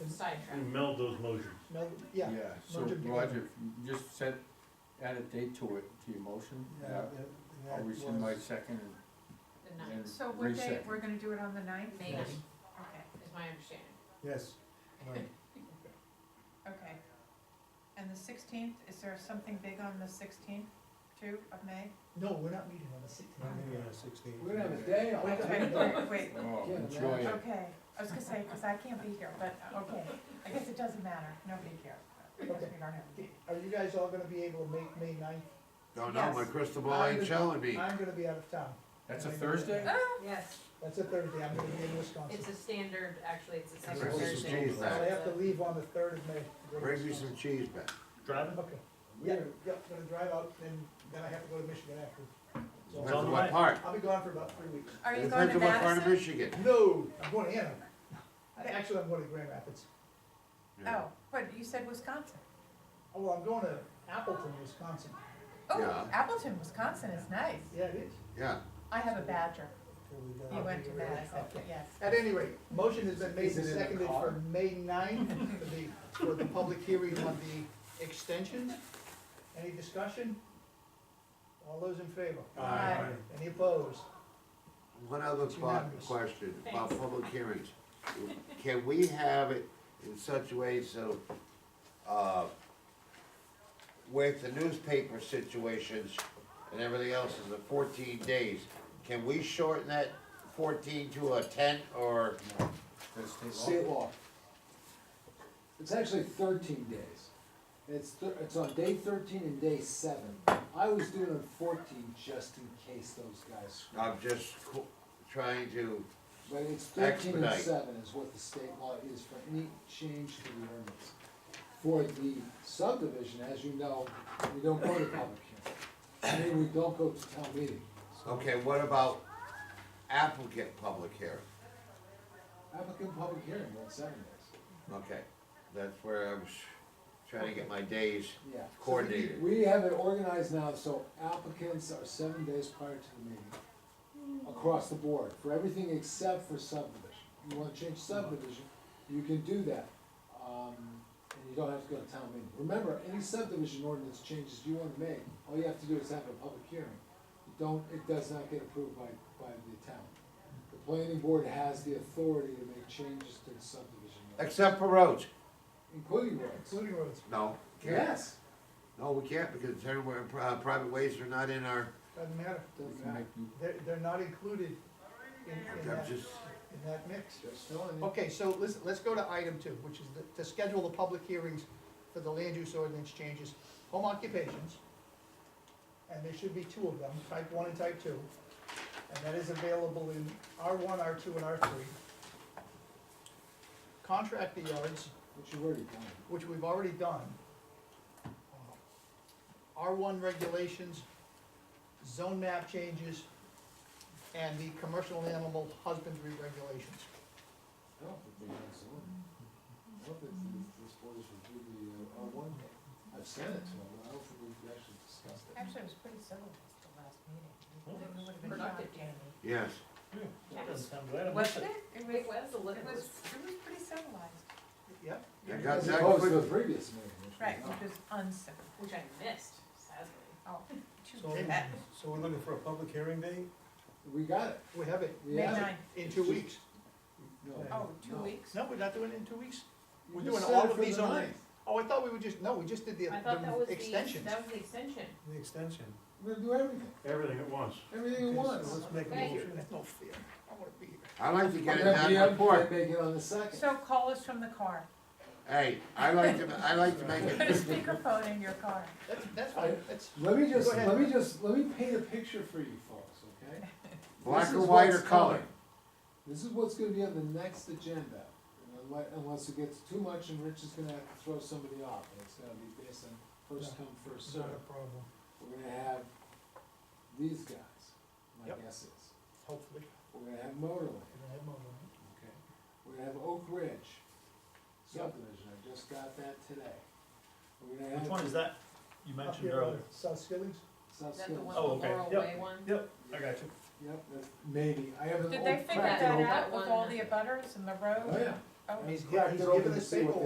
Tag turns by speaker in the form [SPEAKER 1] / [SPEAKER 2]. [SPEAKER 1] We
[SPEAKER 2] sidetracked.
[SPEAKER 3] Mm.
[SPEAKER 1] meld those motions.
[SPEAKER 3] No, yeah,
[SPEAKER 4] Yeah, so
[SPEAKER 3] merge 'em
[SPEAKER 4] Roger, just set, add a date to it, to your motion.
[SPEAKER 3] yeah, that- that
[SPEAKER 4] I'll rescind my
[SPEAKER 3] was-
[SPEAKER 4] second and
[SPEAKER 2] The ninth
[SPEAKER 4] Yes.
[SPEAKER 5] So what day,
[SPEAKER 4] Reset.
[SPEAKER 5] we're gonna do it on the ninth?
[SPEAKER 2] May
[SPEAKER 3] Yes.
[SPEAKER 2] ninth,
[SPEAKER 5] Okay,
[SPEAKER 2] is my understanding.
[SPEAKER 3] Yes, right.
[SPEAKER 5] okay. And the sixteenth, is there something big on the sixteenth, too, of May?
[SPEAKER 3] No, we're not meeting on the sixteenth.
[SPEAKER 6] Not meeting on the sixteenth.
[SPEAKER 7] We're gonna have a day off.
[SPEAKER 5] That's right, wait, wait,
[SPEAKER 4] Oh,
[SPEAKER 7] Yeah,
[SPEAKER 4] enjoy
[SPEAKER 7] man.
[SPEAKER 4] it.
[SPEAKER 5] okay, I was gonna say, cause I can't be here, but, okay, I guess it doesn't matter, nobody cares. I guess we don't have a meeting.
[SPEAKER 3] Are you guys all gonna be able to make May ninth?
[SPEAKER 8] Don't know, my
[SPEAKER 5] Yes.
[SPEAKER 8] crystal ball ain't showing me.
[SPEAKER 3] I'm gonna be out of town.
[SPEAKER 4] That's a Thursday?
[SPEAKER 2] Yes,
[SPEAKER 3] That's a Thursday, I'm gonna be in Wisconsin.
[SPEAKER 2] it's a standard, actually, it's a
[SPEAKER 8] Bring
[SPEAKER 2] standard
[SPEAKER 8] me
[SPEAKER 2] Thursday.
[SPEAKER 8] some cheese
[SPEAKER 3] So I
[SPEAKER 8] back.
[SPEAKER 3] have to leave on the third of May. to go to
[SPEAKER 8] Bring me some
[SPEAKER 3] Wisconsin.
[SPEAKER 8] cheese back.
[SPEAKER 1] Driving?
[SPEAKER 3] Okay, yeah,
[SPEAKER 7] We're,
[SPEAKER 3] yeah, gonna drive out and then I have to go to Michigan after. So
[SPEAKER 8] Depends
[SPEAKER 1] on
[SPEAKER 8] on
[SPEAKER 1] the
[SPEAKER 8] what
[SPEAKER 1] way.
[SPEAKER 8] part.
[SPEAKER 3] I'll be gone for about three weeks.
[SPEAKER 5] Are you going
[SPEAKER 8] Depends
[SPEAKER 5] to
[SPEAKER 8] on what part of
[SPEAKER 5] Madison?
[SPEAKER 8] Michigan.
[SPEAKER 3] No, I'm going to Anna. Actually, I'm going to Grand Rapids.
[SPEAKER 5] Oh, but you said Wisconsin.
[SPEAKER 3] Oh, well, I'm going to Appleton, Wisconsin.
[SPEAKER 5] Oh,
[SPEAKER 8] Yeah.
[SPEAKER 5] Appleton, Wisconsin is nice.
[SPEAKER 3] Yeah, it is.
[SPEAKER 8] Yeah,
[SPEAKER 5] I have a badger.
[SPEAKER 3] Okay,
[SPEAKER 5] You went to
[SPEAKER 3] really?
[SPEAKER 5] Madison,
[SPEAKER 3] Okay.
[SPEAKER 5] yes.
[SPEAKER 3] At any rate, motion has been made
[SPEAKER 7] Is it
[SPEAKER 3] and
[SPEAKER 7] in the
[SPEAKER 3] seconded
[SPEAKER 7] car?
[SPEAKER 3] for May ninth for the, for the public hearing on the extension. Any discussion? All those in favor?
[SPEAKER 5] Aye.
[SPEAKER 3] Any opposed?
[SPEAKER 8] one other
[SPEAKER 3] It's
[SPEAKER 8] part,
[SPEAKER 3] unanimous.
[SPEAKER 8] question about
[SPEAKER 2] Thanks.
[SPEAKER 8] public hearings. Can we have it in such a way so, uh, with the newspaper situations and everything else is the fourteen days, can we shorten that fourteen to a ten or?
[SPEAKER 4] That's state law.
[SPEAKER 7] state law. It's actually thirteen days. It's, thir- it's on day thirteen and day seven. I was doing it fourteen just in case those guys screwed up.
[SPEAKER 8] I'm just co- trying to,
[SPEAKER 7] But it's thirteen and
[SPEAKER 8] Expedite.
[SPEAKER 7] seven is what the state law is for any change to the ordinance. For the subdivision, as you know, we don't go to public hearing. I mean, we don't go to town meeting.
[SPEAKER 8] okay, what about applicant public hearing?
[SPEAKER 7] Applicant public hearing, that's seven days.
[SPEAKER 8] Okay, that's where I was trying to get my days
[SPEAKER 7] Yeah.
[SPEAKER 8] coordinated.
[SPEAKER 7] We have it organized now, so applicants are seven days prior to the meeting, across the board, for everything except for subdivision. You wanna change subdivision, you can do that, um, and you don't have to go to town meeting. Remember, any subdivision ordinance changes you wanna make, all you have to do is have a public hearing. You don't, it does not get approved by, by the town. The planning board has the authority to make changes to the subdivision, ordinance,
[SPEAKER 8] Except for roads.
[SPEAKER 7] including roads.
[SPEAKER 3] Including roads.
[SPEAKER 8] No, can't.
[SPEAKER 7] Yes,
[SPEAKER 8] No, we can't because it's everywhere, pri- uh, private ways are not in our,
[SPEAKER 3] Doesn't matter.
[SPEAKER 7] doesn't
[SPEAKER 4] Make
[SPEAKER 7] matter,
[SPEAKER 4] me-
[SPEAKER 3] They're, they're not included in, in
[SPEAKER 8] I'm
[SPEAKER 3] that, in
[SPEAKER 8] just,
[SPEAKER 3] that mix.
[SPEAKER 7] just telling you.
[SPEAKER 3] Okay, so let's, let's go to item two, which is the- to schedule the public hearings for the land use ordinance changes, home occupations. And there should be two of them, type one and type two. And that is available in R one, R two, and R three. Contract the yards,
[SPEAKER 7] Which you've already done.
[SPEAKER 3] which we've already done. R one regulations, zone map changes, and the commercial animal husbandry regulations.
[SPEAKER 7] I don't think they have someone. I don't think this- this board has reviewed the, uh, R one, I've sent it to them, but I don't think we've actually discussed it.
[SPEAKER 5] Actually, it was pretty civilized the last meeting.
[SPEAKER 1] Well,
[SPEAKER 5] It would've been
[SPEAKER 2] productive,
[SPEAKER 5] shocking.
[SPEAKER 2] Jamie.
[SPEAKER 8] yes.
[SPEAKER 1] Yes, I'm glad I missed
[SPEAKER 5] Wasn't
[SPEAKER 1] it.
[SPEAKER 5] it? It was,
[SPEAKER 2] It was a
[SPEAKER 5] it
[SPEAKER 2] little,
[SPEAKER 5] was, it was pretty civilized.
[SPEAKER 3] Yep,
[SPEAKER 8] I got
[SPEAKER 7] As
[SPEAKER 8] that
[SPEAKER 7] opposed to
[SPEAKER 8] quick.
[SPEAKER 7] the previous meeting, which was
[SPEAKER 5] Right,
[SPEAKER 7] not.
[SPEAKER 5] which was uncivil.
[SPEAKER 2] which I missed, sadly.
[SPEAKER 5] Oh, too
[SPEAKER 6] So,
[SPEAKER 5] bad.
[SPEAKER 6] so we're looking for a public hearing date?
[SPEAKER 7] We got it,
[SPEAKER 3] we have it
[SPEAKER 7] we
[SPEAKER 5] May
[SPEAKER 7] have it.
[SPEAKER 5] ninth.
[SPEAKER 3] in two weeks.
[SPEAKER 7] No,
[SPEAKER 5] Oh, two
[SPEAKER 7] no.
[SPEAKER 5] weeks?
[SPEAKER 3] No, we're not doing it in two weeks?
[SPEAKER 7] You
[SPEAKER 3] We're
[SPEAKER 7] just
[SPEAKER 3] doing
[SPEAKER 7] said
[SPEAKER 3] all
[SPEAKER 7] it
[SPEAKER 3] of
[SPEAKER 7] for
[SPEAKER 3] these
[SPEAKER 7] the
[SPEAKER 3] on-
[SPEAKER 7] ninth.
[SPEAKER 3] Oh, I thought we were just, no, we just did the,
[SPEAKER 2] I thought that was
[SPEAKER 3] the
[SPEAKER 2] the,
[SPEAKER 3] extensions.
[SPEAKER 2] that was the extension.
[SPEAKER 6] The extension.
[SPEAKER 7] We're gonna do everything,
[SPEAKER 1] Everything at once.
[SPEAKER 7] everything at
[SPEAKER 6] Okay, so
[SPEAKER 7] once.
[SPEAKER 6] Let's make a
[SPEAKER 2] Thank
[SPEAKER 6] motion.
[SPEAKER 3] That's no fair, I wanna be here.
[SPEAKER 8] I like to get it
[SPEAKER 7] And then
[SPEAKER 8] done
[SPEAKER 7] we have-
[SPEAKER 8] before.
[SPEAKER 7] Make it on the second.
[SPEAKER 5] So call us from the car.
[SPEAKER 8] Hey, I like to, I like to make
[SPEAKER 5] Put a
[SPEAKER 8] it,
[SPEAKER 5] speakerphone in your car.
[SPEAKER 3] That's, that's fine, that's,
[SPEAKER 7] Let me just,
[SPEAKER 3] Go ahead.
[SPEAKER 7] let me just, let me paint a picture for you folks, okay?
[SPEAKER 8] black
[SPEAKER 7] This
[SPEAKER 8] or
[SPEAKER 7] is
[SPEAKER 8] white or
[SPEAKER 7] what's
[SPEAKER 8] color.
[SPEAKER 7] coming. This is what's gonna be on the next agenda, unless, unless it gets too much and Rich is gonna have to throw somebody off, and it's gonna be based on first come, first
[SPEAKER 3] it's not
[SPEAKER 7] served.
[SPEAKER 3] a problem,
[SPEAKER 7] We're gonna have these guys, my
[SPEAKER 3] Yep.
[SPEAKER 7] guess is,
[SPEAKER 3] hopefully,
[SPEAKER 7] we're gonna have Motorland,
[SPEAKER 3] we don't have one.
[SPEAKER 7] okay, we're gonna have Oak Ridge subdivision, I just got that today. We're gonna have.
[SPEAKER 1] Which one is that you
[SPEAKER 3] Up
[SPEAKER 1] mentioned
[SPEAKER 3] here on
[SPEAKER 1] earlier?
[SPEAKER 3] South Skillings,
[SPEAKER 7] South
[SPEAKER 2] Is that the
[SPEAKER 7] Skills.
[SPEAKER 2] one, the
[SPEAKER 1] Oh, okay.
[SPEAKER 2] Laurel
[SPEAKER 1] Yep.
[SPEAKER 2] Way one?
[SPEAKER 1] Yep, I got you.
[SPEAKER 7] Yep, that's maybe, I haven't.
[SPEAKER 5] Did they figure that
[SPEAKER 2] practical.
[SPEAKER 5] out with all
[SPEAKER 2] That
[SPEAKER 5] the
[SPEAKER 2] one.
[SPEAKER 5] abutters and the
[SPEAKER 7] Oh,
[SPEAKER 5] road?
[SPEAKER 7] yeah.
[SPEAKER 5] Oh,
[SPEAKER 7] I haven't
[SPEAKER 3] He's-
[SPEAKER 7] cracked
[SPEAKER 3] he's
[SPEAKER 7] it open
[SPEAKER 3] given
[SPEAKER 7] to
[SPEAKER 3] us
[SPEAKER 7] see what
[SPEAKER 3] paperwork.